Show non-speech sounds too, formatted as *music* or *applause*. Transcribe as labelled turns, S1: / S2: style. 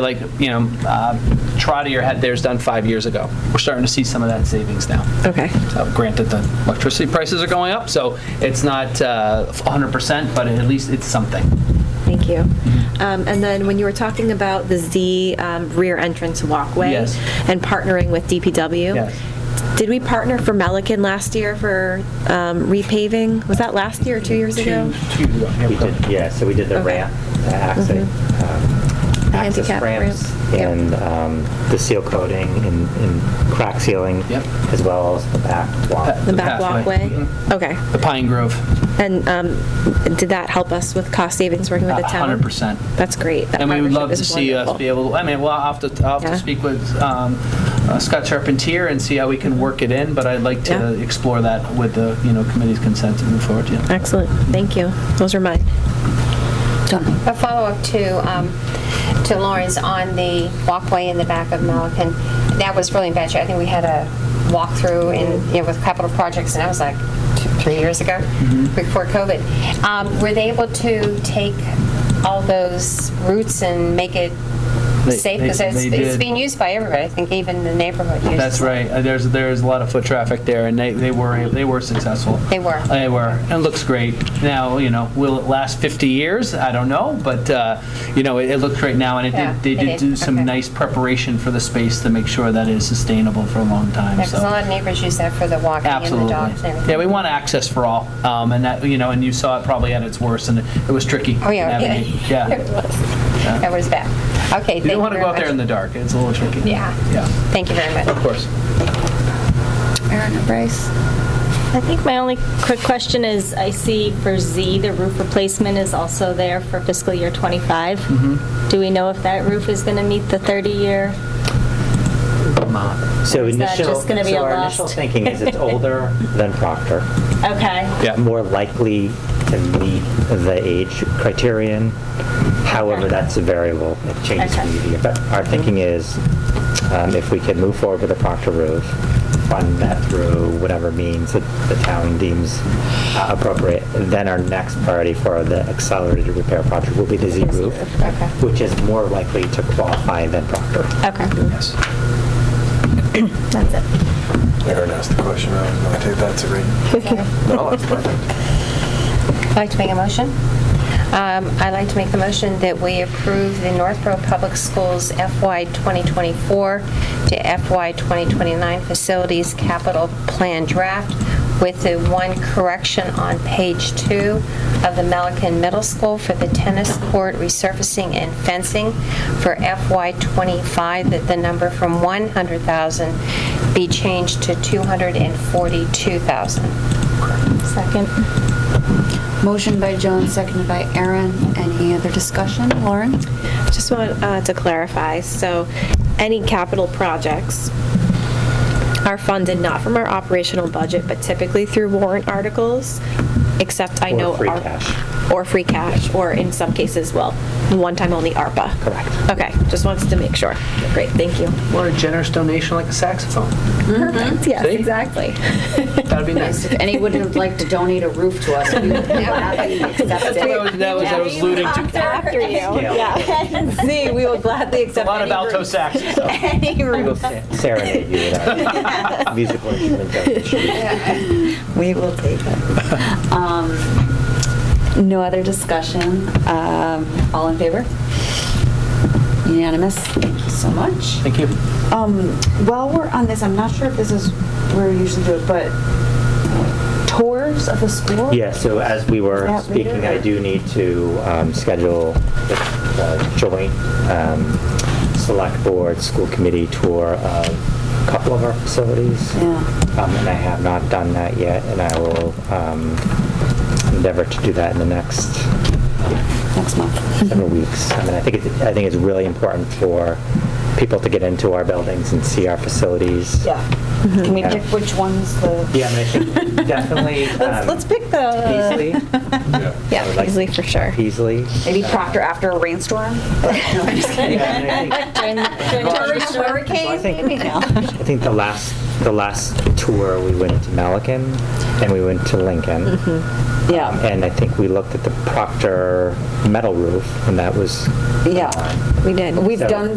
S1: like, you know, uh, Trotter had theirs done five years ago. We're starting to see some of that savings now.
S2: Okay.
S1: So Granted, the electricity prices are going up, so it's not uh, 100%, but at least it's something.
S2: Thank you.
S1: Mm-hmm.
S2: Um, And then when you were talking about the Z um, rear entrance walkway
S1: Yes.
S2: and partnering with DPW,
S1: Yes.
S2: did we partner for Melican last year for um, repaving? Was that last year or two years ago?
S1: Two years ago.
S3: We did, yeah, so we did the
S2: Okay.
S3: ramp, the access,
S4: Mm-hmm.
S3: um, access
S2: handicap
S3: ramps,
S2: ramp, yep.
S3: and um, the seal coating and and crack sealing,
S1: Yep.
S3: as well as the back wall.
S1: Uh,
S2: The back
S1: pathway. Mm-hmm.
S2: walkway? Okay.
S1: The Pine Grove,
S2: And um, did that help us with cost savings working with the town?
S1: 100%.
S2: That's great. That
S1: And we would
S2: partnership
S1: love to
S2: is
S1: see us
S2: wonderful.
S1: be able, I mean, well, I'll have to, I'll have
S2: Yeah.
S1: to speak with um, uh, Scott Charpentier and see how we can work it in, but I'd like to
S2: Yeah.
S1: explore that with the, you know, committee's consent to move forward, yeah.
S2: Excellent. Thank you. Those are mine.
S5: A follow-up to, um, to Lauren's on the walkway in the back of Melican. That was really bad shape. I think we had a walkthrough in, you know, with capital projects, and that was like two, three years ago,
S1: Mm-hmm.
S5: before COVID. Um, Were they able to take all those routes and make it
S1: They-
S5: safe?
S1: they-
S5: Because it's,
S1: they
S5: it's
S1: did.
S5: being used by everybody. I think even the neighborhood uses it.
S1: That's right. Uh, There's, there's a lot of foot traffic there, and they, they were, they were successful.
S5: They were.
S1: They were. And it looks great. Now, you know, will it last 50 years? I don't know, but, uh, you know, it, it looks great now, and it
S5: Yeah,
S1: did, they
S5: it
S1: did
S5: did.
S1: do some
S5: Okay.
S1: nice preparation for the space to make sure that it is sustainable for a long time,
S5: Because a
S1: so.
S5: lot of neighbors use that for the walking and the
S1: Absolutely.
S5: dogs and everything.
S1: Yeah, we want access for all, um, and that, you know, and you saw it probably at its worst, and it was tricky.
S5: Oh, yeah.
S1: to
S5: *laughs*
S1: navigate.
S5: It
S1: Yeah.
S5: was. That was bad. Okay, thank
S1: You
S5: you
S1: don't want to go
S5: very
S1: out there
S5: much.
S1: in the dark. It's a little tricky.
S5: Yeah.
S1: Yeah,
S5: Thank you very much.
S1: of course.
S6: Aaron and Bryce.
S4: I think my only quick question is, I see for Z, the roof replacement is also there for fiscal year '25. Do we know if that roof is going to meet the 30-year?
S3: So
S4: Or is that
S3: initial,
S4: just gonna be
S3: so
S4: a
S3: our initial
S4: lost?
S3: thinking is it's
S4: *laughs*
S3: older than Proctor,
S4: Okay.
S1: Yeah.
S3: more likely to meet the age criterion. However,
S4: Okay.
S3: that's a variable, it changes
S4: Okay.
S3: from year to year. But our thinking is um, if we could move forward with the Proctor roof, fund that through whatever means that the town deems uh, appropriate, then our next priority for the accelerated repair project will be the Z roof,
S5: Okay.
S3: which is more likely to qualify than Proctor.
S4: Okay.
S1: Yes.
S4: That's it.
S7: Aaron asked the question, I was going to take that to read. No, that's perfect.
S5: I'd like to make a motion. Um, I'd like to make the motion that we approve the Northborough Public Schools FY 2024 to FY 2029 Facilities Capital Plan Draft with the one correction on page two of the Melican Middle School for the tennis court resurfacing and fencing for FY '25, that the number from 100,000 be changed to 242,000.
S4: Second.
S6: Motion by Joan, seconded by Aaron. Any other discussion? Lauren?
S2: Just want uh, to clarify, so any capital projects are funded not from our operational budget, but typically through warrant articles, except I
S3: Or
S2: know.
S3: free
S2: our-
S3: cash.
S2: Or free cash, or in some cases, well, one time only ARPA.
S3: Correct.
S2: Okay, just wanted to make sure. Great, thank you.
S1: Or a generous donation like a saxophone.
S2: Mm-hmm. Yes,
S1: See?
S2: exactly.
S1: *laughs* That'd be nice.
S6: If anyone would like to donate a roof to us, we would
S2: *laughs*
S6: gladly accept
S1: That
S6: it.
S1: was, that was, I was alluding to.
S2: After you, *laughs*
S4: *laughs*
S2: yeah. *laughs* See, we will gladly
S1: A
S2: accept
S1: lot of
S2: any
S1: alto
S2: group. *laughs*
S1: sax.
S2: Any
S3: We'll
S2: group.
S3: serenade you with
S4: *laughs*
S3: our musical instrument donation.
S6: We will take it. Um, No other discussion. Um, All in favor? Unanimous? Thank you so much.
S1: Thank you.
S8: Um, while we're on this, I'm not sure if this is where we usually do it, but tours of the school?
S3: Yeah, so as we were
S8: Is that later,
S3: speaking, I
S8: or-
S3: do need to um, schedule the the joint um, select board, school committee tour of a couple of our facilities.
S8: Yeah.
S3: Um, And I have not done that yet, and I will um, endeavor to do that in the next
S6: Next month.
S3: several weeks. I mean, I think, it- I think it's really important for people to get into our buildings and see our facilities.
S8: Yeah. Can we
S3: Yeah.
S8: pick which one's the?
S3: Yeah, I mean, I think definitely. um,
S8: pick the.
S3: Easily.
S7: Yeah.
S3: I would
S2: Yeah,
S3: like-
S2: easily for sure.
S3: Easily.
S8: Maybe Proctor after a rainstorm? No, I'm just kidding.
S3: Yeah, and I think- I
S8: Hurricane,
S3: think-
S8: maybe now.
S3: I think the last, the last tour, we went to Malacan and we went to Lincoln. Um,
S6: Yeah,
S3: And I think we looked at the Proctor metal roof and that was
S6: yeah.
S2: We did.
S6: We've
S3: So-
S6: done